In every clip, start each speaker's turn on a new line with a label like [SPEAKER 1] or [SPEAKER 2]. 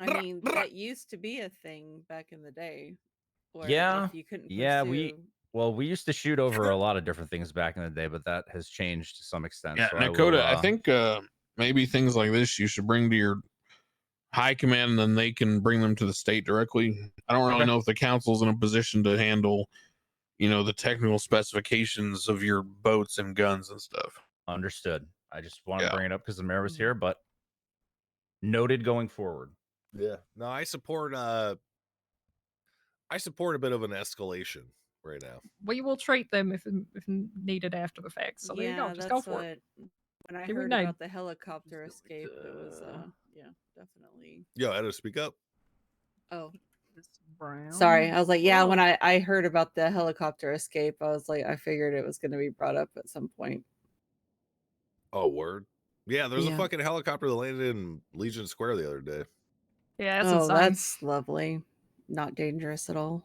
[SPEAKER 1] I mean, that used to be a thing back in the day. Or
[SPEAKER 2] Yeah,
[SPEAKER 1] if you couldn't
[SPEAKER 2] yeah, we-
[SPEAKER 1] pursue-
[SPEAKER 2] Well, we used to shoot over a lot of different things back in the day, but that has changed to some extent.
[SPEAKER 3] Yeah,
[SPEAKER 2] so I will,
[SPEAKER 3] Nakota, I,
[SPEAKER 2] uh,
[SPEAKER 3] think uh, maybe things like this you should bring to your high command, and then they can bring them to the state directly. I don't really
[SPEAKER 2] Okay.
[SPEAKER 3] know if the council's in a position to handle, you know, the technical specifications of your boats and guns and stuff.
[SPEAKER 2] understood. I just want to
[SPEAKER 3] Yeah.
[SPEAKER 2] bring it up because the mayor was here, but noted going forward.
[SPEAKER 4] Yeah. No, I support uh I support a bit of an escalation right now.
[SPEAKER 5] We will treat them if, if needed after the fact. So there you go. Just go for it.
[SPEAKER 1] When I
[SPEAKER 5] Give me
[SPEAKER 1] heard
[SPEAKER 5] nine.
[SPEAKER 1] about the helicopter escape, it was uh,
[SPEAKER 5] Uh,
[SPEAKER 1] yeah, definitely.
[SPEAKER 4] Yo, Edo, speak up.
[SPEAKER 1] Oh, sorry. I was like, yeah. When I I heard about the helicopter escape, I was like, I figured it was going to be brought up at some point.
[SPEAKER 4] Oh, word. Yeah, there's
[SPEAKER 1] Yeah.
[SPEAKER 4] a fucking helicopter that landed in Legion Square the other day.
[SPEAKER 5] Yeah, that's
[SPEAKER 1] oh,
[SPEAKER 5] insane.
[SPEAKER 1] that's lovely. Not dangerous at all.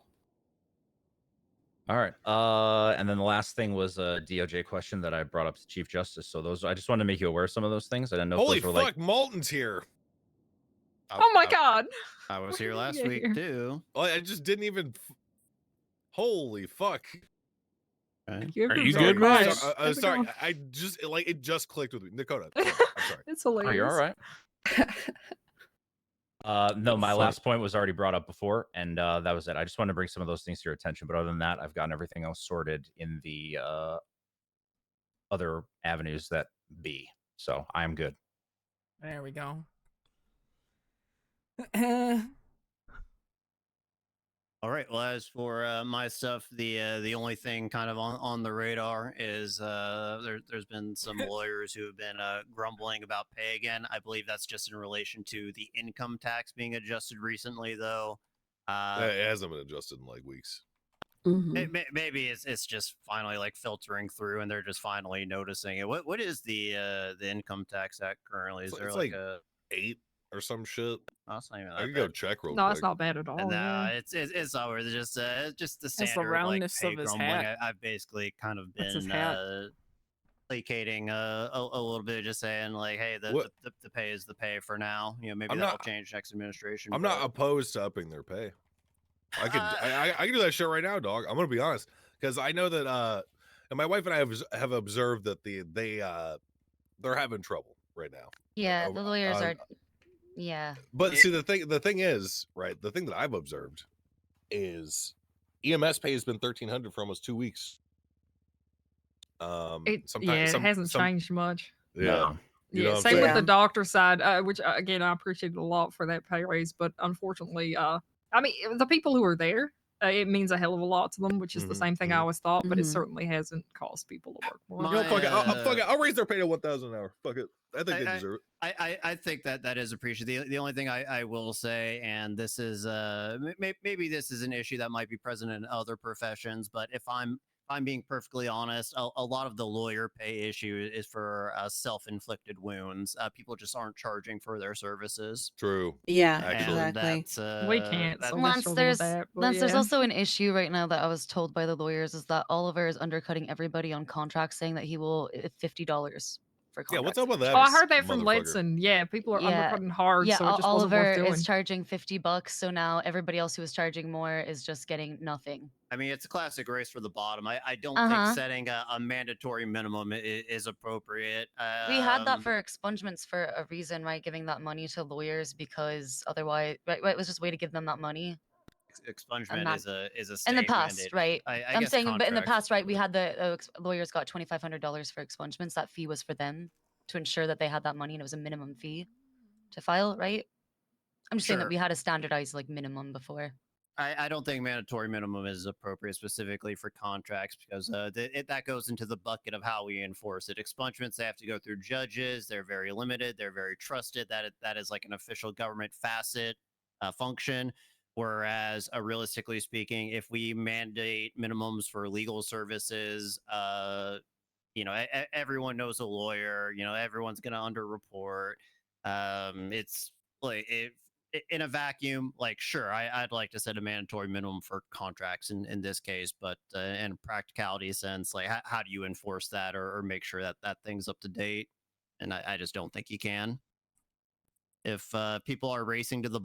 [SPEAKER 2] All right. Uh, and then the last thing was a DOJ question that I brought up to Chief Justice. So those, I just wanted to make you aware of some of those things. I didn't know
[SPEAKER 4] Holy
[SPEAKER 2] if those
[SPEAKER 4] fuck,
[SPEAKER 2] were like
[SPEAKER 4] Malton's here.
[SPEAKER 6] I-
[SPEAKER 5] oh my
[SPEAKER 6] I-
[SPEAKER 5] god.
[SPEAKER 6] I was here
[SPEAKER 5] Why
[SPEAKER 6] last
[SPEAKER 5] did you
[SPEAKER 6] week
[SPEAKER 5] get
[SPEAKER 6] too.
[SPEAKER 4] Oh, I just didn't even. f- Holy fuck!
[SPEAKER 5] You have
[SPEAKER 3] Are
[SPEAKER 5] to be
[SPEAKER 3] you good,
[SPEAKER 5] right.
[SPEAKER 4] Sorry, I, am
[SPEAKER 5] How's it
[SPEAKER 4] sorry.
[SPEAKER 5] going?
[SPEAKER 4] I I just it, like it just clicked with me, Dakota. sorry, I'm sorry.
[SPEAKER 5] It's
[SPEAKER 2] Are
[SPEAKER 5] hilarious.
[SPEAKER 2] you all right? Uh, no, my
[SPEAKER 6] Fuck.
[SPEAKER 2] last point was already brought up before, and uh, that was it. I just wanted to bring some of those things to your attention. But other than that, I've gotten everything else sorted in the uh, other avenues that be. So I'm good.
[SPEAKER 7] There we go. That's
[SPEAKER 6] All right. Well, as for uh, my stuff, the uh, the only thing kind of on, on the radar is uh, there, there's been some lawyers who have been uh, grumbling about pay again. I believe that's just in relation to the income tax being adjusted recently, though. Uh,
[SPEAKER 4] It hasn't been adjusted in like weeks.
[SPEAKER 5] Mm-hmm.
[SPEAKER 6] May- may- Maybe it's it's just finally like filtering through, and they're just finally noticing it. What what is the uh, the income tax act currently? Is
[SPEAKER 4] It's-
[SPEAKER 6] there
[SPEAKER 4] it's
[SPEAKER 6] like,
[SPEAKER 4] like-
[SPEAKER 6] a?
[SPEAKER 4] Eight or some shit.
[SPEAKER 6] Oh, it's not even
[SPEAKER 4] I
[SPEAKER 6] that
[SPEAKER 4] can go
[SPEAKER 6] bad.
[SPEAKER 4] check real
[SPEAKER 5] No,
[SPEAKER 4] quick.
[SPEAKER 5] it's not bad at all.
[SPEAKER 6] And
[SPEAKER 5] yeah.
[SPEAKER 6] no,
[SPEAKER 4] uh,
[SPEAKER 6] it's it's it's over. It's just uh, it's just the
[SPEAKER 7] Oh, the
[SPEAKER 6] standard
[SPEAKER 7] roundness
[SPEAKER 6] like,
[SPEAKER 7] of
[SPEAKER 6] pay
[SPEAKER 7] his
[SPEAKER 6] grumbling.
[SPEAKER 7] hat.
[SPEAKER 6] I, I've basically kind of
[SPEAKER 7] That's his
[SPEAKER 6] been
[SPEAKER 7] hat.
[SPEAKER 6] uh, placating uh, a a little bit, just saying like, hey, the, the,
[SPEAKER 4] What-
[SPEAKER 6] the the pay is the pay for now. You know, maybe
[SPEAKER 4] I'm
[SPEAKER 6] that'll
[SPEAKER 4] not-
[SPEAKER 6] change next administration.
[SPEAKER 4] I'm not opposed to upping their pay. I could
[SPEAKER 6] Uh,
[SPEAKER 4] I, I, I can do that shit right now, dog. I'm gonna be honest because I know that uh, and my wife and I have obs- have observed that the they uh they're having trouble right now.
[SPEAKER 8] Yeah,
[SPEAKER 4] Oh,
[SPEAKER 8] the lawyers
[SPEAKER 4] uh,
[SPEAKER 8] are. Yeah.
[SPEAKER 4] But
[SPEAKER 6] Yeah.
[SPEAKER 4] see the thing the thing is right the thing that I've observed is EMS pay has been 1300 for almost two weeks. Um,
[SPEAKER 5] It,
[SPEAKER 4] sometimes
[SPEAKER 5] yeah,
[SPEAKER 4] some-
[SPEAKER 5] it hasn't
[SPEAKER 4] some-
[SPEAKER 5] changed much.
[SPEAKER 4] Yeah, You know
[SPEAKER 5] Yeah,
[SPEAKER 4] what I'm
[SPEAKER 5] same with the
[SPEAKER 1] saying?
[SPEAKER 5] doctor side, uh, which uh, again I appreciate a lot for that pay raise, but unfortunately, uh, I mean the people who are there, uh, it means a hell of a lot to them, which is the
[SPEAKER 4] Mhm,
[SPEAKER 5] same thing I
[SPEAKER 4] mhm.
[SPEAKER 5] always thought, but it
[SPEAKER 1] Mhm.
[SPEAKER 5] certainly hasn't caused people to work more.
[SPEAKER 6] My-
[SPEAKER 4] You know, fuck it. I'll, I'll- fuck it.
[SPEAKER 6] uh,
[SPEAKER 4] I'll raise their pay to 1000 an hour. Fuck it. I think
[SPEAKER 6] I-
[SPEAKER 4] they
[SPEAKER 6] I-
[SPEAKER 4] deserve it.
[SPEAKER 6] I, I, I think that that is appreciated. The, the only thing I, I will say, and this is uh m- may, maybe this is an issue that might be present in other professions, but if I'm if I'm being perfectly honest, a, a lot of the lawyer pay issue is for uh, self-inflicted wounds. Uh, people just aren't charging for their services.
[SPEAKER 4] True.
[SPEAKER 1] Yeah,
[SPEAKER 4] Actually,
[SPEAKER 6] and
[SPEAKER 1] exactly.
[SPEAKER 6] that's, uh,
[SPEAKER 5] we can't.
[SPEAKER 6] that-
[SPEAKER 5] So
[SPEAKER 8] Lance,
[SPEAKER 5] let's struggle with
[SPEAKER 8] there's-
[SPEAKER 5] that, but
[SPEAKER 8] Lance, there's
[SPEAKER 5] yeah.
[SPEAKER 8] also an issue right now that I was told by the lawyers is that Oliver is undercutting everybody on contracts, saying that he will uh, fifty dollars for
[SPEAKER 4] Yeah.
[SPEAKER 8] contracts.
[SPEAKER 4] What's up with that?
[SPEAKER 5] Oh, I heard that from
[SPEAKER 4] motherfucker?
[SPEAKER 5] Ledson. Yeah, people are
[SPEAKER 8] Yeah.
[SPEAKER 5] undercutting hard,
[SPEAKER 8] Yeah,
[SPEAKER 5] so it
[SPEAKER 8] Ol-
[SPEAKER 5] just
[SPEAKER 8] Oliver
[SPEAKER 5] wasn't worth doing.
[SPEAKER 8] is charging fifty bucks, so now everybody else who was charging more is just getting nothing.
[SPEAKER 6] I mean, it's a classic race for the bottom. I, I don't
[SPEAKER 8] Uh-huh.
[SPEAKER 6] think setting a, a mandatory minimum is, is appropriate.
[SPEAKER 8] we had that
[SPEAKER 6] Um,
[SPEAKER 8] for expungements for a reason, right? Giving that money to lawyers because otherwise, right? right it was just a way to give them that money
[SPEAKER 6] ex- expungement
[SPEAKER 8] that-
[SPEAKER 6] is a is a
[SPEAKER 8] in the
[SPEAKER 6] state
[SPEAKER 8] past,
[SPEAKER 6] mandate.
[SPEAKER 8] right?
[SPEAKER 6] I, I
[SPEAKER 8] I'm
[SPEAKER 6] guess
[SPEAKER 8] saying, but in the
[SPEAKER 6] contracts-
[SPEAKER 8] past, right, we had the uh, ex- lawyers got twenty five hundred dollars for expungements. That fee was for them to ensure that they had that money, and it was a minimum fee to file, right? I'm just saying
[SPEAKER 6] Sure.
[SPEAKER 8] that we had a standardized like minimum before.
[SPEAKER 6] I, I don't think mandatory minimum is appropriate specifically for contracts because uh, th- it, that goes into the bucket of how we enforce it. Expungements they have to go through judges. They're very limited. They're very trusted. That i- that is like an official government facet uh, function. Whereas, uh, realistically speaking, if we mandate minimums for legal services, uh, you know, e- e- everyone knows a lawyer. You know, everyone's going to underreport. Um, it's like it i- in a vacuum, like sure, I, I'd like to set a mandatory minimum for contracts in, in this case, but uh, in a practicality sense, like how, how do you enforce that or, or make sure that that thing's up to date? And I, I just don't think you can. If uh, people are racing to the